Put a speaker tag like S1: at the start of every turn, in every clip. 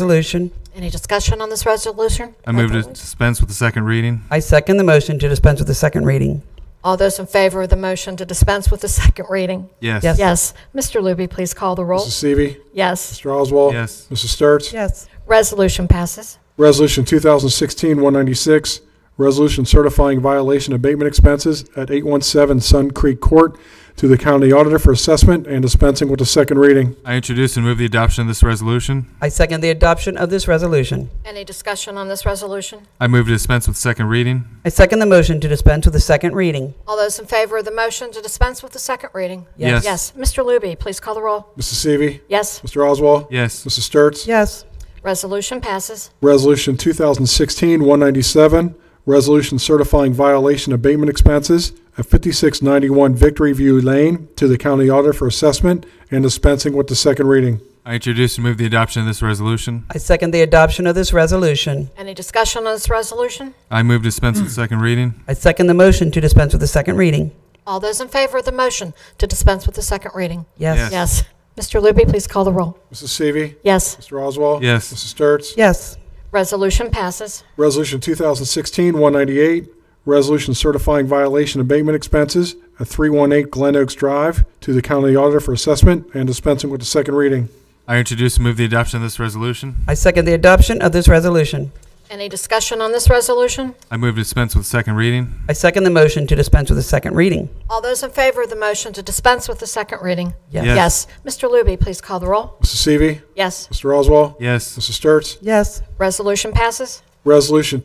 S1: resolution.
S2: Any discussion on this resolution?
S3: I move to dispense with the second reading.
S1: I second the motion to dispense with the second reading.
S2: All those in favor of the motion to dispense with the second reading?
S3: Yes.
S1: Yes.
S2: Yes. Mr. Luby, please call the roll.
S4: Mrs. Seavey.
S2: Yes.
S4: Mr. Oswald.
S3: Yes.
S4: Mrs. Sturts.
S1: Yes.
S2: Resolution passes.
S4: Resolution 2016-196, resolution certifying violation abatement expenses at 817 Sun Creek Court to the county auditor for assessment and dispensing with the second reading.
S3: I introduce and move the adoption of this resolution.
S1: I second the adoption of this resolution.
S2: Any discussion on this resolution?
S3: I move to dispense with second reading.
S1: I second the motion to dispense with the second reading.
S2: All those in favor of the motion to dispense with the second reading?
S3: Yes.
S2: Yes. Mr. Luby, please call the roll.
S4: Mrs. Seavey.
S2: Yes.
S4: Mr. Oswald.
S3: Yes.
S4: Mrs. Sturts.
S1: Yes.
S2: Resolution passes.
S4: Resolution 2016-197, resolution certifying violation abatement expenses at 5691 Victory View Lane to the county auditor for assessment and dispensing with the second reading.
S3: I introduce and move the adoption of this resolution.
S1: I second the adoption of this resolution.
S2: Any discussion on this resolution?
S3: I move to dispense with second reading.
S1: I second the motion to dispense with the second reading.
S2: All those in favor of the motion to dispense with the second reading?
S1: Yes.
S2: Yes. Mr. Luby, please call the roll.
S4: Mrs. Seavey.
S2: Yes.
S4: Mr. Oswald.
S3: Yes.
S4: Mrs. Sturts.
S1: Yes.
S2: Resolution passes.
S4: Resolution 2016-198, resolution certifying violation abatement expenses at 318 Glen Oaks Drive to the county auditor for assessment and dispensing with the second reading.
S3: I introduce and move the adoption of this resolution.
S1: I second the adoption of this resolution.
S2: Any discussion on this resolution?
S3: I move to dispense with second reading.
S1: I second the motion to dispense with the second reading.
S2: All those in favor of the motion to dispense with the second reading?
S1: Yes.
S3: Yes.
S2: Yes. Mr. Luby, please call the roll.
S4: Mrs. Seavey.
S2: Yes.
S4: Mr. Oswald.
S3: Yes.
S4: Mrs. Sturts.
S1: Yes.
S2: Resolution passes.
S4: Resolution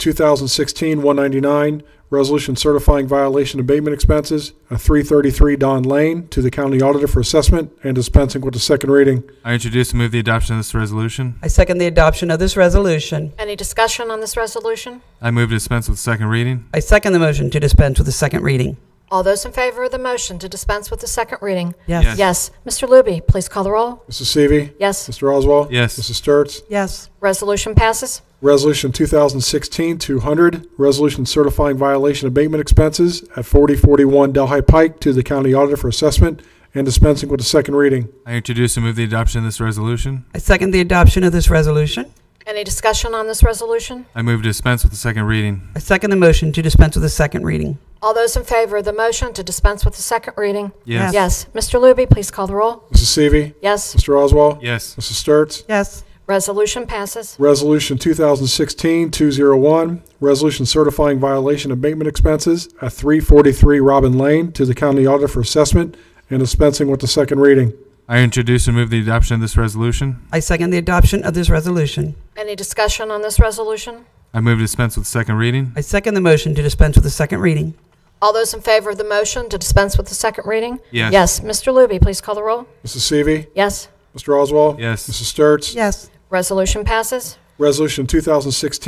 S4: 2016-199, resolution certifying violation abatement expenses at 333 Don Lane to the county auditor for assessment and dispensing with the second reading.
S3: I introduce and move the adoption of this resolution.
S1: I second the adoption of this resolution.
S2: Any discussion on this resolution?
S3: I move to dispense with second reading.
S1: I second the motion to dispense with the second reading.
S2: All those in favor of the motion to dispense with the second reading?
S3: Yes.
S2: Yes. Mr. Luby, please call the roll.
S4: Mrs. Seavey.
S2: Yes.
S4: Mr. Oswald.
S3: Yes.
S4: Mrs. Sturts.
S1: Yes.
S2: Resolution passes.
S4: Resolution 2016-200, resolution certifying violation abatement expenses at 4041 Delhi Pike to the county auditor for assessment and dispensing with the second reading.
S3: I introduce and move the adoption of this resolution.
S1: I second the adoption of this resolution.
S2: Any discussion on this resolution?
S3: I move to dispense with the second reading.
S1: I second the motion to dispense with the second reading.
S2: All those in favor of the motion to dispense with the second reading?
S3: Yes.
S2: Yes. Mr. Luby, please call the roll.
S4: Mrs. Seavey.
S2: Yes.
S4: Mr. Oswald.
S3: Yes.
S4: Mrs. Sturts.
S1: Yes.
S2: Resolution passes.
S4: Resolution 2016-201, resolution certifying violation abatement expenses at 343 Robin Lane to the county auditor for assessment and dispensing with the second reading.
S3: I introduce and move the adoption of this resolution.
S1: I second the adoption of this resolution.
S2: Any discussion on this resolution?
S3: I move to dispense with second reading.
S1: I second the motion to dispense with the second reading.
S2: All those in favor of the motion to dispense with the second reading?
S3: Yes.
S2: Yes. Mr. Luby, please call the roll.
S4: Mrs. Seavey.
S2: Yes.
S4: Mr. Oswald.
S3: Yes.
S4: Mrs. Sturts.
S1: Yes.
S2: Resolution passes.
S4: Resolution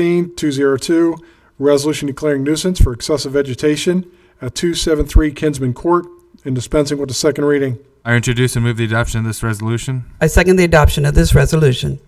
S4: 2016-202, resolution declaring nuisance for excessive vegetation at 273 Kinsman Court and dispensing with the second reading.
S3: I introduce and move the adoption of this resolution.
S1: I second the adoption of this resolution.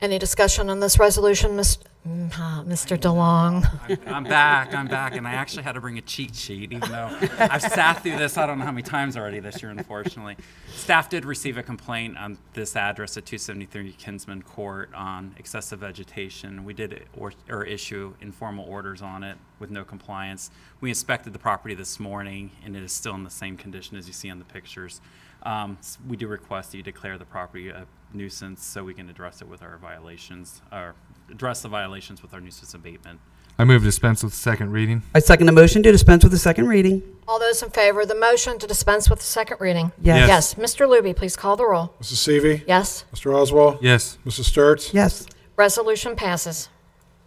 S2: Any discussion on this resolution, Mis- mm, huh, Mr. DeLong?
S5: I'm back. I'm back, and I actually had to bring a cheat sheet, even though I've sat through this. I don't know how many times already this year, unfortunately. Staff did receive a complaint on this address at 273 Kinsman Court on excessive vegetation. We did or, or issue informal orders on it with no compliance. We inspected the property this morning, and it is still in the same condition as you see on the pictures. Um, s- we do request that you declare the property a nuisance so we can address it with our violations, or address the violations with our nuisance abatement.
S3: I move to dispense with second reading.
S1: I second the motion to dispense with the second reading.
S2: All those in favor of the motion to dispense with the second reading?
S1: Yes.
S2: Yes. Mr. Luby, please call the roll.
S4: Mrs. Seavey.
S2: Yes.
S4: Mr. Oswald.
S3: Yes.
S4: Mrs. Sturts.
S1: Yes.
S2: Resolution passes.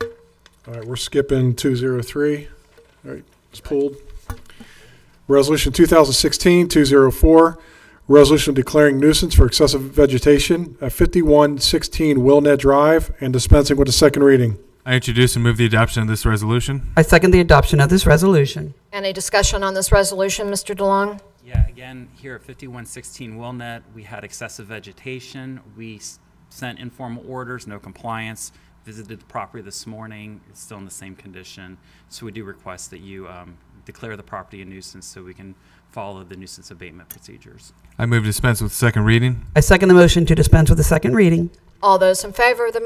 S4: All right, we're skipping 203. All right, it's pulled. Resolution 2016-204, resolution declaring nuisance for excessive vegetation at 5116 Willnet Drive and dispensing with the second reading.
S3: I introduce and move the adoption of this resolution.
S1: I second the adoption of this resolution.
S2: Any discussion on this resolution, Mr. DeLong?
S5: Yeah, again, here at 5116 Willnet, we had excessive vegetation. We s- sent informal orders, no compliance. Visited the property this morning, it's still in the same condition. So we do request that you um, declare the property a nuisance so we can follow the nuisance abatement procedures.
S3: I move to dispense with second reading.
S1: I second the motion to dispense with the second reading.
S2: All those in favor of the